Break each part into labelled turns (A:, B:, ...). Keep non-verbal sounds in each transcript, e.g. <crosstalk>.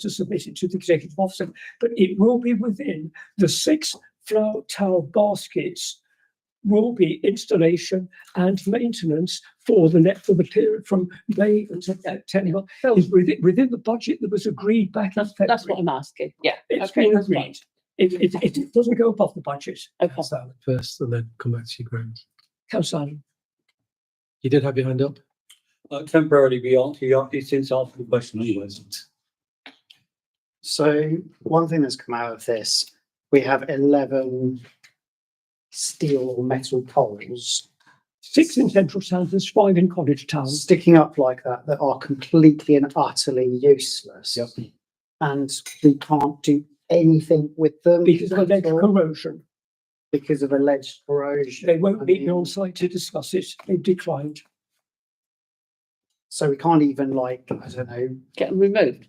A: to submit it to the executive officer, but it will be within the six flower towel baskets will be installation and maintenance for the net for the period from May until uh, September.
B: So
A: Is within, within the budget that was agreed back in February.
B: that's what I'm asking. Yeah.
A: It's
B: okay,
A: been
B: that's
A: agreed. It, it, it it doesn't go above the budget.
B: Okay.
C: Ask that first and then come back to you, Graham.
A: Councillor Allen.
C: You did have your hand up?
D: Uh, temporarily, we aren't, you are- it's since after the question anyways.
E: So one thing that's come out of this, we have eleven steel or metal poles
A: Six in central Sandhurst, five in College Town.
E: sticking up like that that are completely and utterly useless.
D: Yep.
E: And we can't do anything with them
A: Because of
E: at
A: alleged
E: all
A: corrosion,
E: because of alleged corrosion.
A: they won't meet me on site to discuss it. They've declined.
E: So we can't even like, I don't know,
B: Get them removed.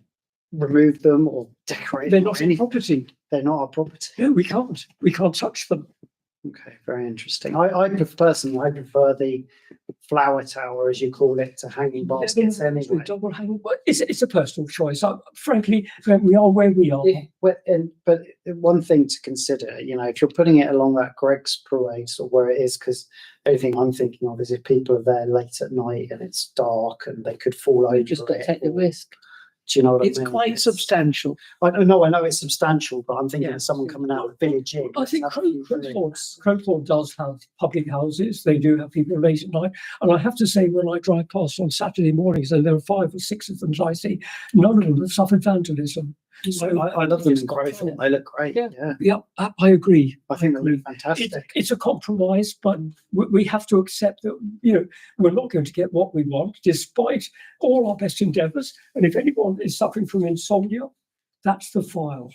E: remove them or decorate.
A: They're
E: them or
A: not in
E: anything.
A: property.
E: They're not our property.
A: No, we can't. We can't touch them.
E: Okay, very interesting. I, I pref- personally, I prefer the flower tower, as you call it, to hanging baskets
A: It's
E: anyway.
A: a double hang- well, It's, it's a personal choice. I, frankly, when we are where we are.
E: Yeah, well, and, but one thing to consider, you know, if you're putting it along that Greg's Parade or where it is, because only thing I'm thinking of is if people are there late at night and it's dark and they could fall over.
B: We've just got to
E: Oh, it,
B: take the
E: or-
B: risk.
E: Do you know what I
F: It's
E: mean?
F: quite
E: It's-
F: substantial.
E: I don't know, I know it's substantial, but I'm thinking
F: Yeah.
E: of someone coming out of the village inn.
A: I think
E: that's
A: Cro-
E: a few
A: Crowthorne,
E: drinks.
A: Crowthorne does have public houses. They do have people late at night. And I have to say, when I drive past on Saturday mornings, and there are five or six of them that I see, none of them have suffered vandalism.
E: I,
A: So,
E: I love them in
B: got
E: Crowthorne.
B: toilet.
E: They look great.
B: Yeah.
E: Yeah.
A: yeah, I I agree.
E: I think they look
A: It,
E: fantastic.
A: it's a compromise, but we, we have to accept that, you know, we're not going to get what we want despite all our best endeavors. And if anyone is suffering from insomnia, that's the file.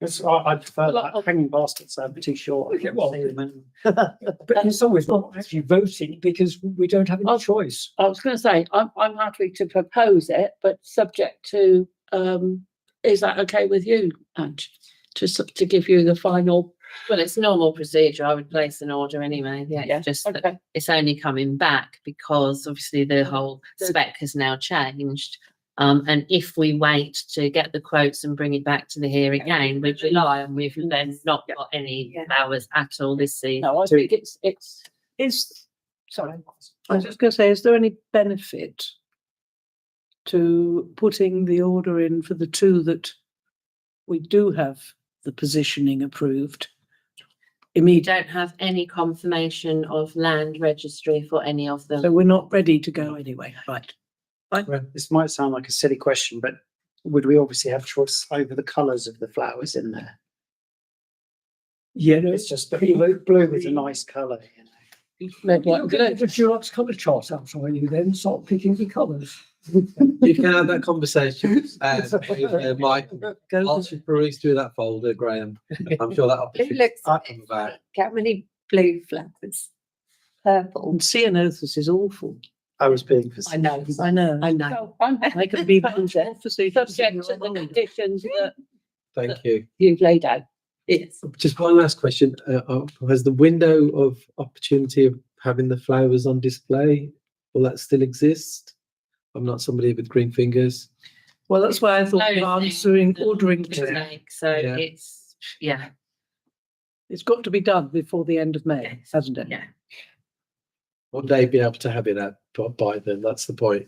E: It's, I, I prefer
B: Lot
E: that.
B: of-
E: Hanging baskets are too short. I
A: Okay,
E: can't
A: well,
E: see them in-
A: But in some ways, we're not actually voting because we don't have any
B: Oh.
A: choice.
B: I was going to say, I'm, I'm happy to propose it, but subject to, um, is that okay with you, Ange? To, s- to give you the final,
G: Well, it's normal procedure. I would place an order anyway. Yeah,
B: Yeah,
G: it's just that
B: okay,
G: it's only coming back because obviously the whole
B: The-
G: spec has now changed. Um, and if we wait to get the quotes and bring it back to the here again, we July and we've then not
B: Mm, Yeah.
G: got any
B: Yeah.
G: flowers at all this season.
B: no, I
E: to-
B: think it's, it's,
F: Is,
B: sorry.
F: I was just going to say, is there any benefit to putting the order in for the two that we do have the positioning approved
G: We
F: immediately?
G: don't have any confirmation of land registry for any of them.
F: So we're not ready to go anyway, right?
E: Well, this might sound like a silly question, but would we obviously have choice over the colours of the flowers in there?
A: Yeah, no,
E: It's just that <laughs> blue, blue is a nice colour. You know?
B: Maybe
A: You'll
B: like
A: get a
B: blue.
A: bit of Dulux colour chart out on you then, start picking the colours.
C: You can have that <laughs> conversation, uh, with, uh, Mike.
F: Go,
C: Once you peruse through that folder, Graham, I'm sure
H: It
C: that opportunity
H: looks,
C: will come about.
H: how many blue flowers? Purple.
F: and ceanothus is awful.
E: I was being.
G: I know,
F: I know.
G: I know.
B: So I'm
F: They can be.
B: subject to the conditions that
C: Thank you.
B: you've laid out.
G: It's
C: Just one last question. Uh, uh, has the window of opportunity of having the flowers on display, will that still exist? I'm not somebody with green fingers.
F: Well, that's why I thought
G: Closing
F: answering,
G: the
F: ordering, to-
G: mistake. So
C: Yeah.
G: it's, yeah.
F: it's got to be done before the end of May,
G: Yes.
F: hasn't it?
G: Yeah.
C: Will they be able to have it at, by- by then? That's the point.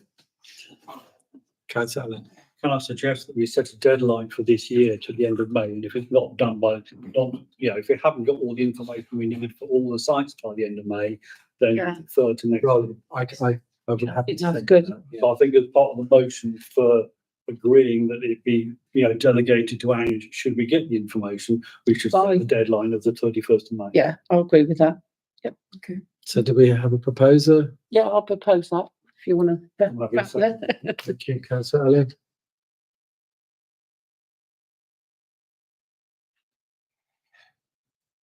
C: Councillor Allen.
D: Can I suggest that we set a deadline for this year to the end of May? And if it's not done by, not, you know, if we haven't got all the information we need for all the sites by the end of May, then
B: Yeah.
D: defer to next.
C: Well, I, I, I would have.
B: It's good.
D: So I think as part of the motion for agreeing that it be, you know, delegated to Ange, should we get the information, we should set
B: By-
D: the deadline of the thirty-first of May.
B: Yeah, I agree with that.
C: So do we have a proposer?
B: Yeah, I'll propose that if you want
D: Lovely, so-
B: to.
C: Thank you, councillor Allen.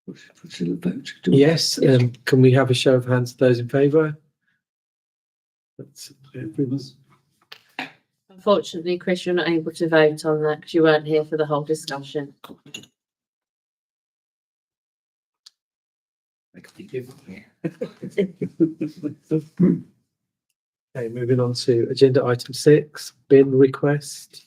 A: Put a little vote. do we?
C: Yes, um, can we have a show of hands, those in favour? That's everyone.
G: Unfortunately, Chris, you're not able to vote on that because you weren't here for the whole discussion.
C: Okay, moving on to agenda item six, bin request.